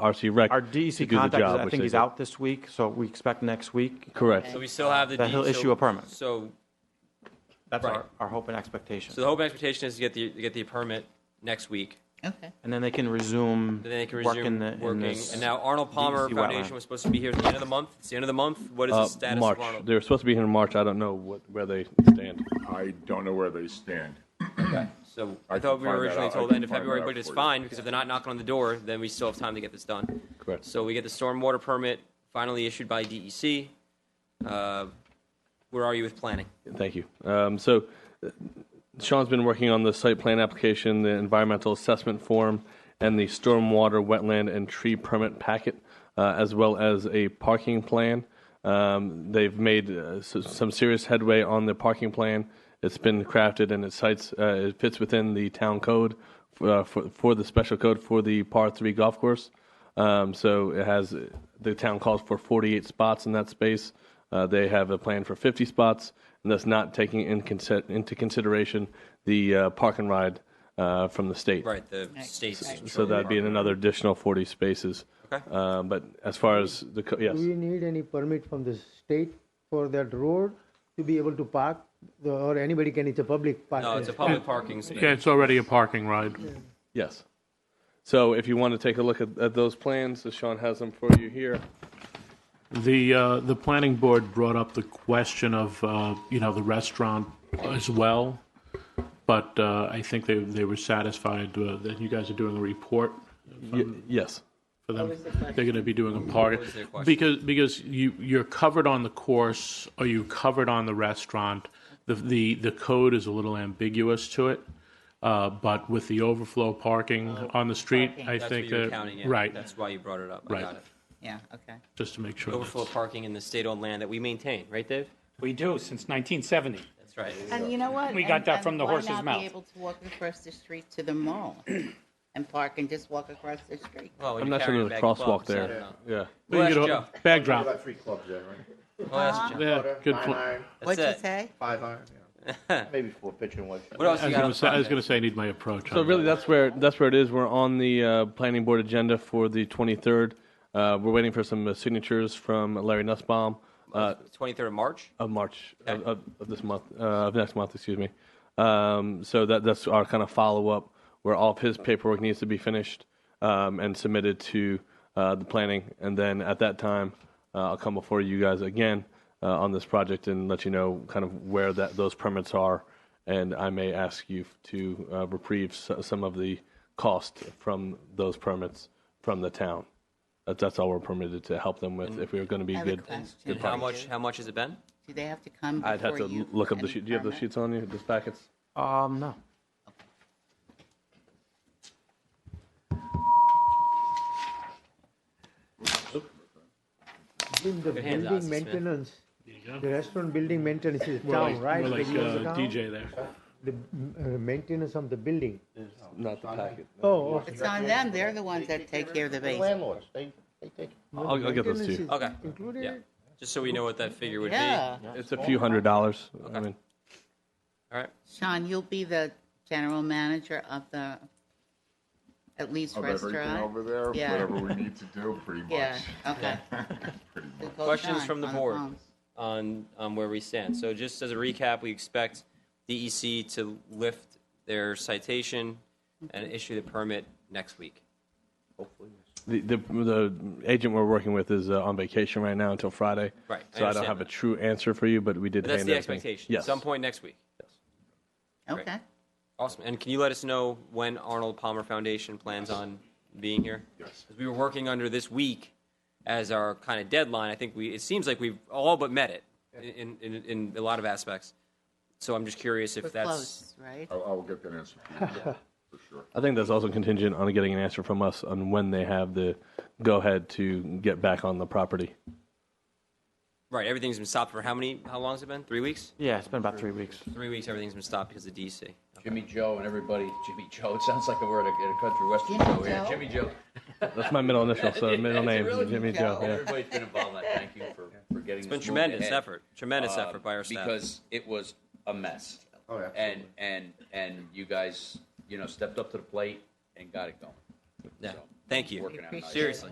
RC uh, Rec. Our to DEC do the contact, is- job, I which think they he's did. out this week, so we expect next week. Correct. So we still have the. That he'll deed, so- issue a permit. So, That's Right. our, our hope and expectation. so the hope and expectation is to get the, to get the permit next week. Okay. And then they can resume Then they can work in resume the- in working. this And now Arnold Palmer DEC Foundation wetland. was supposed to be here at the end of the month. It's the end of the month. What is Uh, the status March. of Arnold? They're supposed to be here in March. I don't know what, where they stand. I don't know where they stand. So I I thought can we were find that originally out. I told can end of find February, that but out it's for you. fine because if they're not knocking on the door, then we still have time to get this done. Correct. So we get the stormwater permit finally issued by DEC. Uh, Where are you with planning? Thank you. Um, so uh, Sean's been working on the site plan application, the environmental assessment form, and the stormwater, wetland, and tree permit packet, uh, as well as a parking plan. Um, they've made uh, s- some serious headway on the parking plan. It's been crafted and it cites uh, it fits within the town code uh, for for the special code for the par three golf course. Um, so it has the town calls for 48 spots in that space. Uh, they have a plan for 50 spots, and that's not taking in consi- into consideration the uh, park and ride uh, from the state. Right, the Right. state's. So that'd be in another additional 40 spaces. Okay. Uh, but as far as the co- yes, Do we need any permit from the state for that road to be able to park? Or anybody can, it's a public park. No, it's a public parking space. Yeah, it's already a parking ride. yes. So if you want to take a look at, at those plans, as Sean has them for you here. The, uh, the planning board brought up the question of, uh, you know, the restaurant as well, but, uh, I think they, they were satisfied uh, that you guys are doing a report Y- yes. for them. They're gonna be doing a party. was their question? Because, because you, you're covered on the course, or you covered on the restaurant. The, the, the code is a little ambiguous to it, uh, but with the overflow parking on the street, parking. I That's what think you were that, counting in. right, That's why you brought it up. I Right. got it. Yeah, okay. just to make sure. Overflow parking in the state-owned land that we maintain, right, Dave? We do, since 1970. That's right. And you know what? We got And- that and from the horse's Why not mouth. be able to walk across the street to the mall and park and just walk across the street? Well, when I'm you're not carrying sure a there's a bag of crosswalk clubs, I there. don't know. Yeah. Well, you Well, could that's al- Bag You drop. got three clubs there, right? Well, that's Joe. Yeah, Quarter, good nine point. iron, That's What'd you it. say? Five iron, yeah. Maybe four pitching and one shot. What else I you was got on gonna say, I was front there? gonna say I need my approach. So on really, that. that's where that's where it is. We're on the uh, planning board agenda for the 23rd. Uh, we're waiting for some uh, signatures from Larry Nussbaum uh, 23rd of March? of March of, of, of this month uh, of next month, excuse me. Um, so that that's our kind of follow up where all of his paperwork needs to be finished um, and submitted to uh, the planning, and then at that time, uh, I'll come before you guys again uh, on this project and let you know kind of where that those permits are, and I may ask you to uh, reprieve s- some of the cost from those permits from the town. That, that's all we're permitted to help them with if we are going to be I have a good. question. good And how partners. much, how much has it been? Do they have to come I'd have before to you? l- look up the and sheet. Do you have the permit? sheets on you? Those packets? Um, no. In the hands, building Ozzy Smith. maintenance, the restaurant building maintenance is the town, right? We're like The use of uh, town, DJ there. The uh, maintenance of the building. Not the packet. Oh, okay. It's on them, they're the ones that take care of the The base. landlords, they, they take. I'll, I'll get those to Maintenance you. is Okay. Included? Yeah. Just so we know what that figure would be. All Yeah, It's a few hundred dollars. I mean, right. Sean, you'll be the general manager of the, at least Of everything restaurant? over there, Yeah. whatever we need to do, pretty much. Yeah, okay. Pretty much. We'll call Questions Sean from the on board? phone. on, on where we stand. So just as a recap, we expect DEC to lift their citation and issue the permit next week. the, the the agent we're working with is uh, on vacation right now until Friday. Right, So I, I don't understand have a that. true answer for you, but we did. But that's hand the everything- expectation, Yes. some point next week. Okay. Awesome. And can you let us know when Arnold Palmer Foundation plans on being here? Yes. We were working under this week as our kind of deadline. I think we, it seems like we've all but met it in, in, in a lot of aspects. So I'm just curious if We're that's. close, right? I'll, I'll get that answer for you, for sure. I think that's also contingent on getting an answer from us on when they have the go ahead to get back on the property. Right, everything's been stopped for how many, how long has it been? Three weeks? Yeah, it's been about three weeks. Three weeks, everything's been stopped because of DC. Jimmy Joe and everybody, Jimmy Joe. It sounds like we're at a, at a country western Jimmy show here. Joe? Jimmy Joe. That's my middle initial, so middle name is Jimmy Joe. yeah. Everybody's been involved in that. Thank you for, for getting It's this been moving tremendous ahead. effort, tremendous Um, effort by our staff. Because it was a mess. Oh, absolutely. And, and, and you guys, you know, stepped up to the plate and got it going. Yeah. Thank you. Working out nice. Seriously.